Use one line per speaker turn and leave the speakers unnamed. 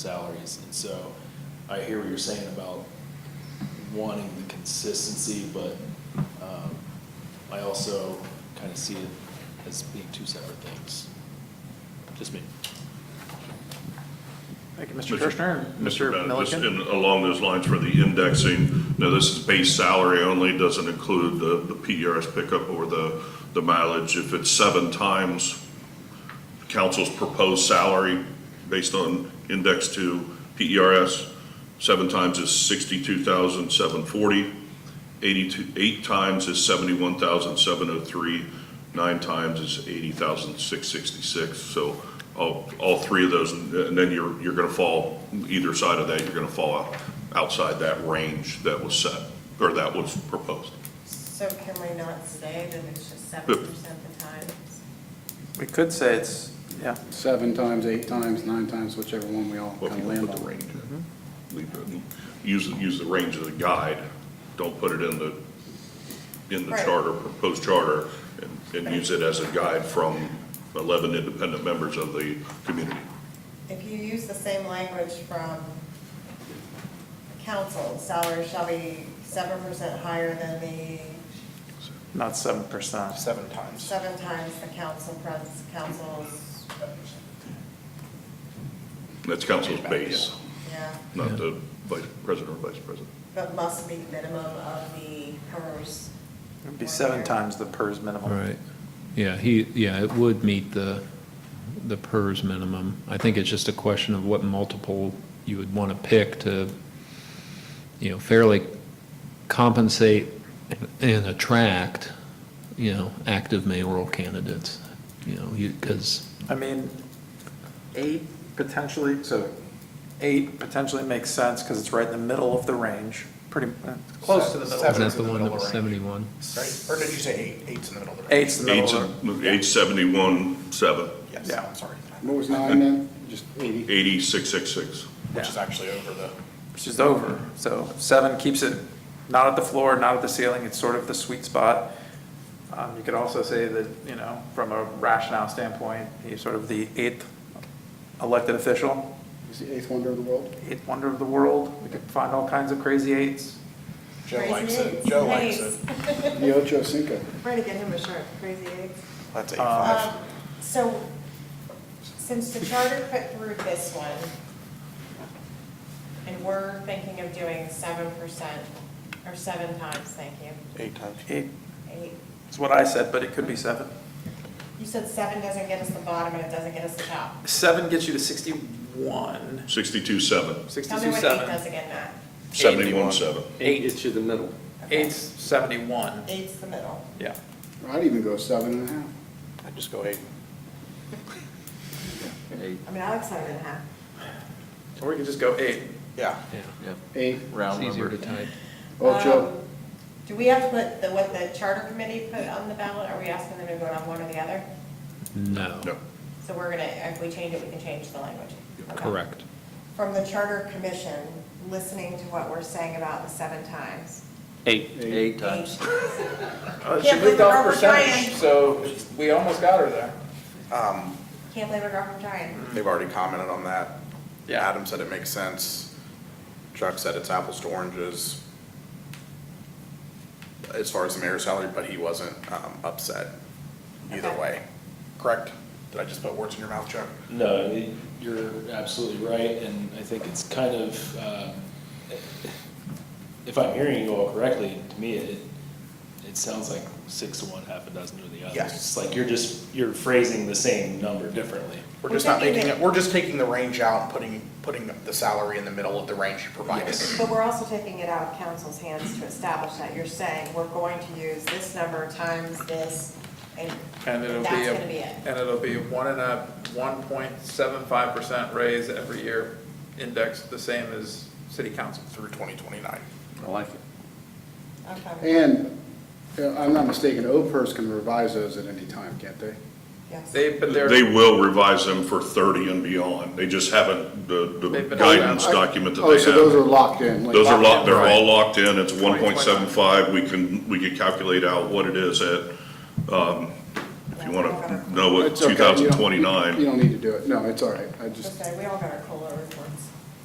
salaries. And so I hear what you're saying about wanting the consistency, but um, I also kind of see it as being two separate things. Just me.
Thank you, Mr. Kirschner. Mr.
Bennett, just
Milliken?
in- Along those lines for the indexing, now this is base salary only, doesn't include the, the PRS pickup or the, the mileage. If it's seven times council's proposed salary based on index to PERS, seven times is sixty-two thousand seven forty. Eighty-two, eight times is seventy-one thousand seven oh three. Nine times is eighty thousand six sixty-six. So all, all three of those, and then you're, you're gonna fall, either side of that, you're gonna fall out- outside that range that was set, or that was proposed.
So can we not say that it's just seven percent the time?
We could say it's, yeah,
seven times, eight times, nine times, whichever one we all
Well,
kind
if
of
you
land
put the
on.
range in, leave it, use, use the range as a guide, don't put it in the, in the
Right.
charter, proposed charter, and, and use it as a guide from eleven independent members of the community.
If you use the same language from council, salary shall be seven percent higher than the,
not seven percent.
seven times.
seven times the council, pres- council's,
That's council's base,
yeah,
not the vice president or vice president.
but must be minimum of the PERS.
It'd be seven times the PERS minimum.
Right. Yeah, he, yeah, it would meet the, the PERS minimum. I think it's just a question of what multiple you would want to pick to, you know, fairly compensate and attract, you know, active mayoral candidates, you know, you, because,
I mean, eight potentially, so eight potentially makes sense because it's right in the middle of the range, pretty, uh, close to the middle.
is
Seven.
that
Seven's
the
in the
one that
middle
was
of range.
71?
Right, or did you say eight? Eight's in the middle of the.
Eight's the
Eight,
middle of
eight seventy-one, seven,
Yes,
Yeah.
I'm sorry,
What was nine then? Just eighty?
eighty-six, six, six.
which is actually over the,
the, which is over. So seven keeps it not at the floor, not at the ceiling, it's sort of the sweet spot. Um, you could also say that, you know, from a rationale standpoint, he's sort of the eighth elected official,
Is the eighth wonder of the world?
eighth wonder of the world. We could find all kinds of crazy eights.
Joe
Crazy
likes it,
eights.
Joe likes it.
Nice.
The Ocho Cinco.
Trying to get him a shirt, crazy eggs.
That's eight
Um,
five.
So, since the charter put through this one, and we're thinking of doing seven percent, or seven times, thank you,
Eight times.
Eight
eight.
is what I said, but it could be seven.
You said seven doesn't get us the bottom and it doesn't get us the top.
Seven gets you to sixty-one,
Sixty-two, seven,
Tell me
sixty-two,
what eight does
seven.
again, Matt.
seventy-one, seven.
Eight.
It's you the middle.
Eight's seventy-one,
Eight's the middle.
yeah.
I'd even go seven and a half.
I'd just go eight.
Eight,
I mean, I like seven and a half.
Or we could just go eight.
Yeah,
Yeah,
yep,
Eight,
round
it's easier
number.
to type.
Ocho.
Um, Do we have to put the, what the charter committee put on the ballot? Are we asking them to vote on one or the other?
No,
No,
So we're gonna, if we change it, we can change the language. Okay.
correct.
from the Charter Commission, listening to what we're saying about the seven times.
Eight times.
Uh, She
Can't believe
moved off
we're
percentage,
trying.
so we almost got her there.
um,
Can't blame a girl from trying.
they've already commented on that.
Yeah.
Adam said it makes sense. Chuck said it's apples to oranges as far as the mayor's salary, but he wasn't, um, upset either
Okay.
way. Correct? Did I just put words in your mouth, Chuck?
No, it- you're absolutely right, and I think it's kind of, um, if I'm hearing you all correctly, to me, it, it sounds like six to one, half a dozen to the other.
Yes.
It's like you're just, you're phrasing the same number differently.
We're
We're
just not
taking
making
it-
it, we're just taking the range out and putting, putting the salary in the middle of the range you provided.
But we're also taking it out of council's hands to establish that. You're saying, we're going to use this number times this, and
And it'll be.
that's
a-
gonna be it.
And it'll be one and a, one point seven five percent raise every year, indexed the same as city council.
through 2029.
I like it.
Okay,
And, uh, I'm not mistaken, OPERS can revise those at any time, can't they?
yes.
They, but they're.
They will revise them for thirty and beyond, they just haven't, the,
They've
the
been-
guidance document that
Oh, so those are
they have.
locked in? like-
Those are locked, they're
Right.
all locked in, it's one point seven five, we can, we can calculate out what it is at, um, if you wanna know what
It's okay,
two
you don't-
thousand
You
twenty-nine.
don't need to do it. No, it's all right. I just,
Just say, we all got our COLA reports.